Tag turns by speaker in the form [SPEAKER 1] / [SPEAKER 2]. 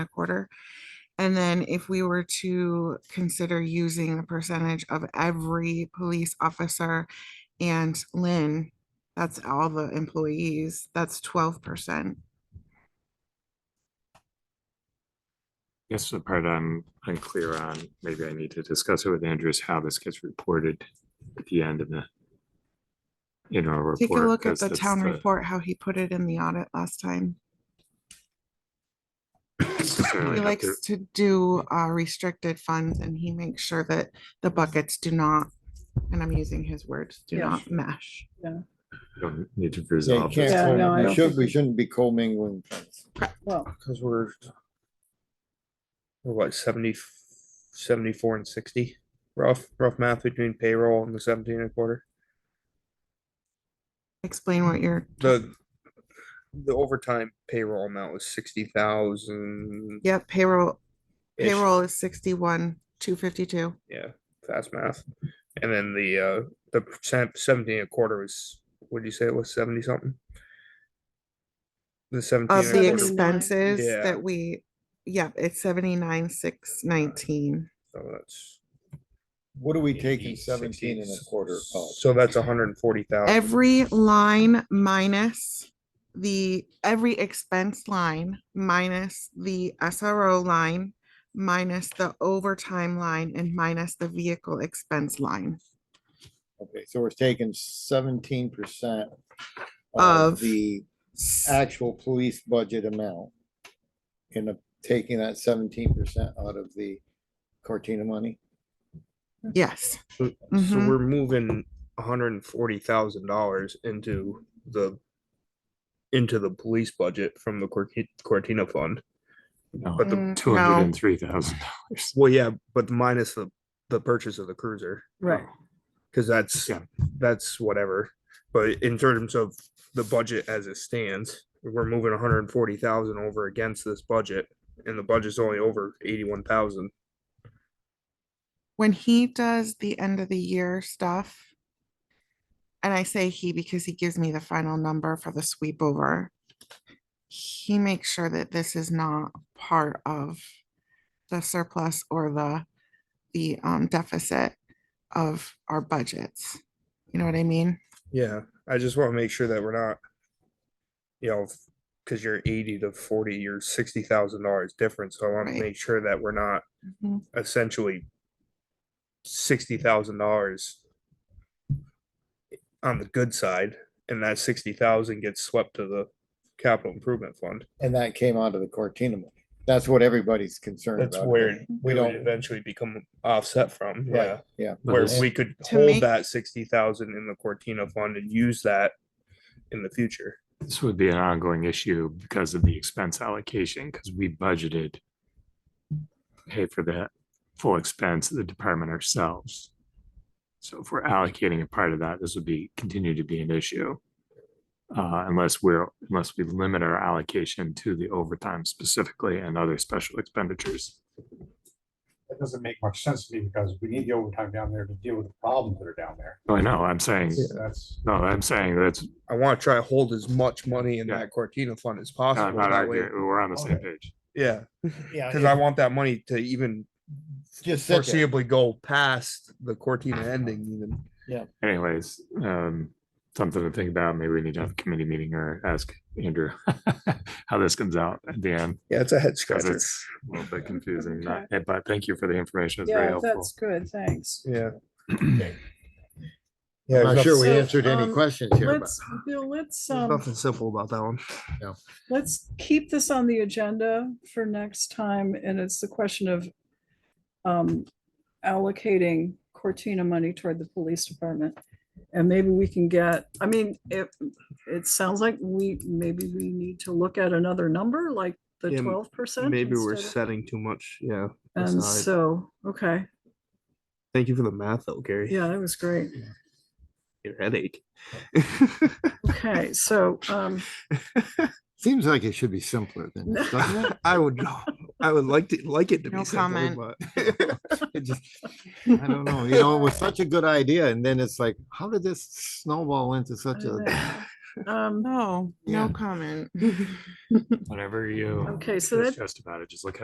[SPEAKER 1] a quarter. And then if we were to consider using the percentage of every police officer and Lynn, that's all the employees, that's twelve percent.
[SPEAKER 2] Guess the part I'm unclear on, maybe I need to discuss it with Andrew, is how this gets reported at the end of the. You know, report.
[SPEAKER 1] Take a look at
[SPEAKER 2] 'cause
[SPEAKER 1] the
[SPEAKER 2] that's
[SPEAKER 1] town report, how he put it in the audit last time.
[SPEAKER 2] certainly
[SPEAKER 1] He
[SPEAKER 2] have to-
[SPEAKER 1] likes to do uh, restricted funds and he makes sure that the buckets do not, and I'm using his words, do
[SPEAKER 3] Yeah.
[SPEAKER 1] not mesh.
[SPEAKER 2] Don't need to
[SPEAKER 4] Yeah, you
[SPEAKER 2] resolve
[SPEAKER 4] can't
[SPEAKER 2] this.
[SPEAKER 3] Yeah,
[SPEAKER 4] co-
[SPEAKER 3] no, I
[SPEAKER 4] we
[SPEAKER 3] don't
[SPEAKER 4] should,
[SPEAKER 3] think
[SPEAKER 4] we
[SPEAKER 3] we-
[SPEAKER 4] shouldn't be commingling things,
[SPEAKER 3] Well,
[SPEAKER 4] because we're,
[SPEAKER 5] Or what, 70, 74 and sixty? Rough, rough math between payroll and the seventeen and a quarter.
[SPEAKER 1] Explain what you're,
[SPEAKER 5] The, the overtime payroll amount was sixty thousand.
[SPEAKER 1] yeah, payroll, payroll is sixty-one, two fifty-two.
[SPEAKER 5] Yeah, fast math. And then the, uh, the percent seventeen and a quarter was, what'd you say it was, seventy something? The seventeen
[SPEAKER 1] Of
[SPEAKER 5] and
[SPEAKER 1] the
[SPEAKER 5] a quarter,
[SPEAKER 3] ex-
[SPEAKER 1] expenses
[SPEAKER 5] Yeah.
[SPEAKER 1] that we, yeah, it's seventy-nine, six nineteen.
[SPEAKER 5] so that's.
[SPEAKER 4] what are we taking
[SPEAKER 5] 80,
[SPEAKER 4] seventeen
[SPEAKER 5] 60,
[SPEAKER 4] and a quarter of?
[SPEAKER 5] So that's a hundred and forty thousand.
[SPEAKER 1] Every line minus the, every expense line minus the SRO line, minus the overtime line and minus the vehicle expense line.
[SPEAKER 4] Okay, so we're taking seventeen percent
[SPEAKER 1] Of-
[SPEAKER 4] of the actual police budget amount. And uh, taking that seventeen percent out of the Cortina money,
[SPEAKER 1] Yes.
[SPEAKER 5] So, so
[SPEAKER 1] Mhm.
[SPEAKER 5] we're moving hundred and forty thousand dollars into the into the police budget from the Corti- Cortina fund. But the
[SPEAKER 1] Mm,
[SPEAKER 2] Two hundred and three thousand.
[SPEAKER 5] well, yeah, but minus the the purchase of the cruiser
[SPEAKER 3] right,
[SPEAKER 5] because that's
[SPEAKER 2] Yeah.
[SPEAKER 5] that's whatever. But in terms of the budget as it stands, we're moving one hundred and forty thousand over against this budget, and the budget's only over eighty one thousand.
[SPEAKER 1] When he does the end of the year stuff, and I say he because he gives me the final number for the sweep over, he makes sure that this is not part of the surplus or the, the um, deficit of our budgets. You know what I mean?
[SPEAKER 5] Yeah, I just want to make sure that we're not, you know, because you're eighty to forty, you're sixty thousand dollars different. So I want
[SPEAKER 1] Right.
[SPEAKER 5] to make sure that we're not
[SPEAKER 1] Mhm.
[SPEAKER 5] essentially sixty thousand dollars on the good side, and that sixty thousand gets swept to the capital improvement fund.
[SPEAKER 4] and that came out of the Cortina money. That's what everybody's concerned about.
[SPEAKER 5] That's where
[SPEAKER 4] We
[SPEAKER 5] we don't
[SPEAKER 4] don't,
[SPEAKER 5] eventually become offset from. Yeah,
[SPEAKER 4] right, yeah,
[SPEAKER 5] where
[SPEAKER 4] this-
[SPEAKER 5] we could
[SPEAKER 1] To make-
[SPEAKER 5] hold that sixty thousand in the Cortina fund and use that in the future.
[SPEAKER 2] This would be an ongoing issue because of the expense allocation, because we budgeted. Pay for the full expense of the department ourselves. So if we're allocating a part of that, this would be, continue to be an issue. Uh, unless we're, unless we limit our allocation to the overtime specifically and other special expenditures.
[SPEAKER 6] that doesn't make much sense to me because we need the overtime down there to deal with the problems that are down there.
[SPEAKER 2] Oh, I know, I'm saying,
[SPEAKER 6] That's- That's.
[SPEAKER 2] no, I'm saying that's
[SPEAKER 5] I want to try to hold as much money in
[SPEAKER 2] Yeah.
[SPEAKER 5] that Cortina fund as
[SPEAKER 2] not
[SPEAKER 5] possible.
[SPEAKER 2] not
[SPEAKER 5] that way-
[SPEAKER 2] arguing, we're on the same page.
[SPEAKER 5] Yeah,
[SPEAKER 4] yeah,
[SPEAKER 5] because I want that money to even
[SPEAKER 4] just sit there.
[SPEAKER 5] foreseeably go past the Cortina ending even.
[SPEAKER 2] Anyways, um, something to think about. Maybe we need to have a committee meeting or ask Andrew how this comes out at the end.
[SPEAKER 5] Yeah, it's a head
[SPEAKER 2] Because
[SPEAKER 5] scratcher.
[SPEAKER 2] it's a little bit confusing, not- but thank you for the information. It's very
[SPEAKER 3] yeah,
[SPEAKER 2] helpful.
[SPEAKER 3] that's good, thanks.
[SPEAKER 5] Yeah.
[SPEAKER 4] Okay.
[SPEAKER 5] Yeah,
[SPEAKER 4] I'm
[SPEAKER 5] there's
[SPEAKER 4] not sure
[SPEAKER 5] nothing-
[SPEAKER 4] we
[SPEAKER 3] So,
[SPEAKER 4] answered any
[SPEAKER 3] um,
[SPEAKER 4] questions here, but
[SPEAKER 3] Let's, Bill, let's,
[SPEAKER 5] there's
[SPEAKER 3] um,
[SPEAKER 5] Nothing simple about that one.
[SPEAKER 3] let's keep this on the agenda for next time, and it's the question of um, allocating Cortina money toward the police department. And maybe we can get, I mean, it, it sounds like we, maybe we need to look at another number, like the
[SPEAKER 5] Yeah, m-
[SPEAKER 3] twelve percent.
[SPEAKER 5] Maybe we're setting too much. Yeah.
[SPEAKER 3] And
[SPEAKER 5] aside.
[SPEAKER 3] Um, so, okay,
[SPEAKER 5] Thank you for the math though, Gary.
[SPEAKER 3] yeah, that was great.
[SPEAKER 5] Your headache.
[SPEAKER 3] Okay, so, um,
[SPEAKER 4] seems like it should be simpler than this, doesn't it?
[SPEAKER 5] I would, I would like to, like it to
[SPEAKER 1] No
[SPEAKER 5] be simple,
[SPEAKER 1] comment.
[SPEAKER 5] but.
[SPEAKER 4] It just, I don't know, you know, it was such a good idea, and then it's like, how did this snowball
[SPEAKER 3] I
[SPEAKER 4] into
[SPEAKER 5] uh,
[SPEAKER 4] such
[SPEAKER 3] don't
[SPEAKER 4] a
[SPEAKER 3] know.
[SPEAKER 1] Um,
[SPEAKER 7] No,
[SPEAKER 8] Yeah.
[SPEAKER 7] no comment.
[SPEAKER 2] whatever you.
[SPEAKER 1] Okay, so
[SPEAKER 2] it's
[SPEAKER 1] that-
[SPEAKER 2] Just about it. Just look at.